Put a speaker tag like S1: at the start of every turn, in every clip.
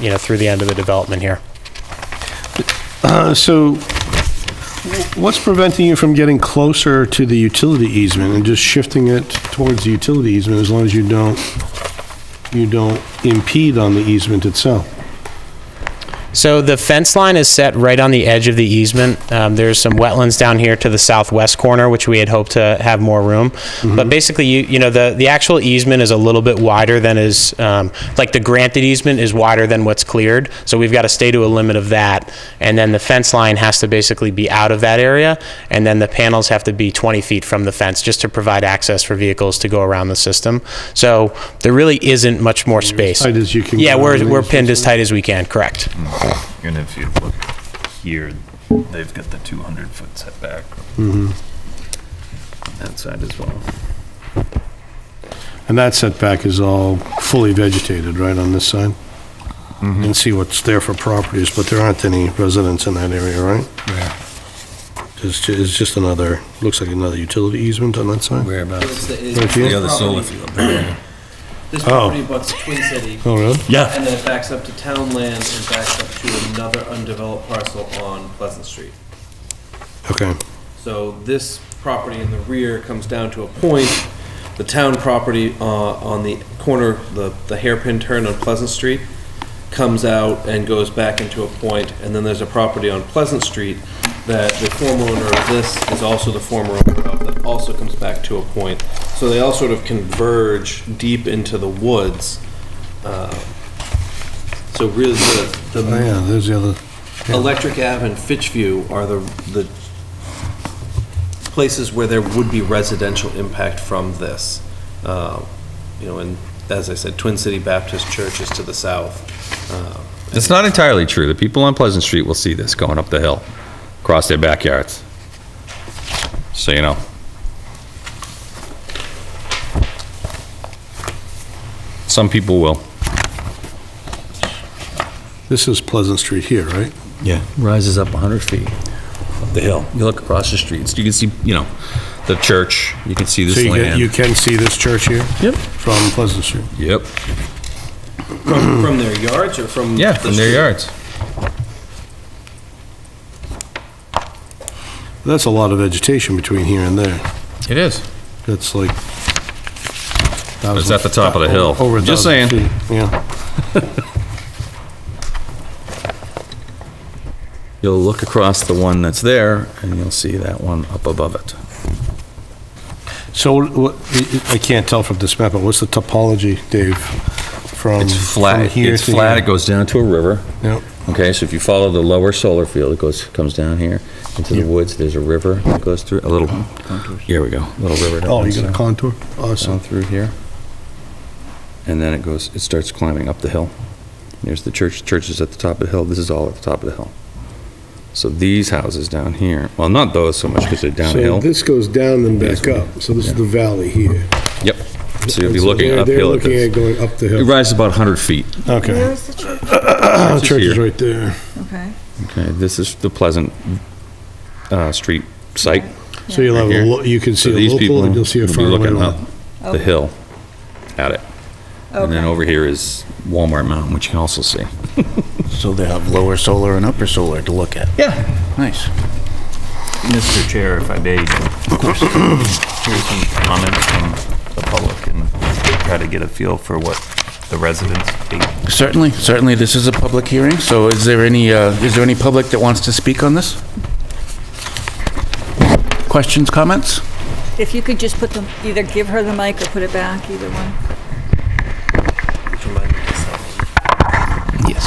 S1: you know, through the end of the development here.
S2: Uh, So what's preventing you from getting closer to the utility easement and just shifting it towards the utility easement as long as you don't, you don't impede on the easement itself?
S1: So the fence line is set right on the edge of the easement. Um, there's some wetlands down here to the southwest corner, which we had hoped to have more room. But basically, you, you know, the, the actual easement is a little bit wider than is, um, like the granted easement is wider than what's cleared. So we've got to stay to a limit of that. And then the fence line has to basically be out of that area. And then the panels have to be 20 feet from the fence just to provide access for vehicles to go around the system. So there really isn't much more space.
S2: Tight as you can.
S1: Yeah,
S2: go
S1: we're,
S2: on the
S1: we're
S2: easement.
S1: pinned as tight as we can, correct.
S3: And if you look here, they've got the 200-foot setback.
S4: Mm-hmm.
S3: That side as well.
S2: And that setback is all fully vegetated, right, on this side? You can see what's there for properties, but there aren't any residents in that area, right? It's ju- it's just another, looks like another utility easement on that side?
S5: It's
S4: Whereabouts?
S5: the-
S2: Right
S5: it's-
S2: here?
S4: The other solar field.
S5: This
S2: Oh.
S5: property butts Twin City,
S2: Oh, really?
S4: Yeah.
S5: and then it backs up to town land and backs up to another undeveloped parcel on Pleasant Street.
S2: Okay.
S5: So this property in the rear comes down to a point. The town property uh, on the corner, the the hairpin turn on Pleasant Street, comes out and goes back into a point, and then there's a property on Pleasant Street that the former owner of this is also the former owner of, that also comes back to a point. So they all sort of converge deep into the woods. Uh, So really, the-
S2: Oh,
S5: the
S2: yeah, there's the other,
S5: Electric Ave and Fitchview are the, the places where there would be residential impact from this. Uh, You know, and as I said, Twin City Baptist Church is to the south. Uh,
S6: It's not entirely true. The people on Pleasant Street will see this going up the hill, across their backyards. So you know. Some people will.
S2: this is Pleasant Street here, right?
S4: Yeah, rises up 100 feet up the hill. You look across the streets, you can see, you know, the church, you can see
S2: So
S4: this
S2: you can, you
S4: land.
S2: can see this church here?
S4: Yep.
S2: From Pleasant Street.
S6: Yep.
S5: From from their yards or from?
S6: Yeah,
S5: the
S6: from their yards.
S5: street?
S2: That's a lot of vegetation between here and there.
S6: It is.
S2: That's like.
S6: It's at the top of the hill.
S2: Over a
S6: Just
S2: thousand
S6: saying.
S2: feet, Yeah.
S4: You'll look across the one that's there, and you'll see that one up above it.
S2: So what, I- I can't tell from this map, but what's the topology, Dave? From.
S6: It's flat.
S2: from here
S6: It's
S2: to
S6: flat. It
S2: here?
S6: goes down to a river.
S2: Yep.
S6: Okay, so if you follow the lower solar field, it goes, comes down here into the woods. There's a river that goes through, a little, here we go, little river. that
S2: Oh, you
S6: runs
S2: got a
S6: down.
S2: contour?
S6: down
S2: Awesome.
S6: through here. And then it goes, it starts climbing up the hill. There's the church, church is at the top of the hill, this is all at the top of the hill. So these houses down here, well, not those so much because they're
S2: So
S6: downhill.
S2: this goes down and back
S6: Yes.
S2: up. So this is the valley here.
S6: Yep, so you'll be
S2: So
S6: looking
S2: they're- They're
S6: uphill at
S2: looking at
S6: this.
S2: going up the
S6: It
S2: hill.
S6: rises about 100 feet.
S2: Okay.
S7: Where is the church?
S2: The
S6: is
S2: church is
S6: here.
S2: right there.
S7: Okay.
S6: Okay, this is the Pleasant uh, Street site.
S2: So you'll have,
S6: Right
S2: a
S6: here.
S2: lo- you can
S6: So
S2: see a
S6: these
S2: local
S6: people
S2: and you'll see a
S6: will be
S2: faraway
S6: looking
S2: one.
S6: up The hill at it. And then over here is Walmart Mountain, which you can also see.
S8: So they have lower solar and upper solar to look at.
S6: Yeah.
S8: Nice.
S3: Mr. Chair, if I may, here's some comments from the public and try to get a feel for what the residents think.
S8: Certainly, certainly, this is a public hearing, so is there any, uh, is there any public that wants to speak on this? Questions, comments?
S7: If you could just put them, either give her the mic or put it back, either one.
S8: Yes.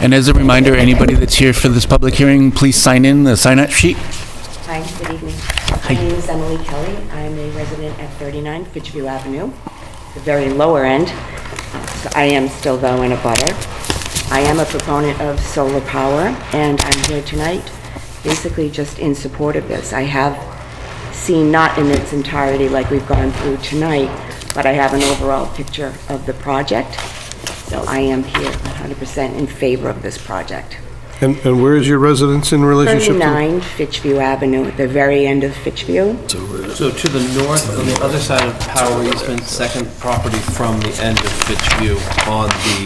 S8: And as a reminder, anybody that's here for this public hearing, please sign in the sign-up sheet.
S9: Hi, good evening. My name is Emily Kelly. I'm a resident at 39 Fitchview Avenue, the very lower end. So I am still though in a butter. I am a proponent of solar power, and I'm here tonight basically just in support of this. I have seen, not in its entirety like we've gone through tonight, but I have an overall picture of the project. So I am here 100% in favor of this project.
S2: And, and where is your residence in relationship to?
S9: 39 Fitchview Avenue, at the very end of Fitchview.
S5: So to the north, on the other side of Power Easement, second property from the end of Fitchview on the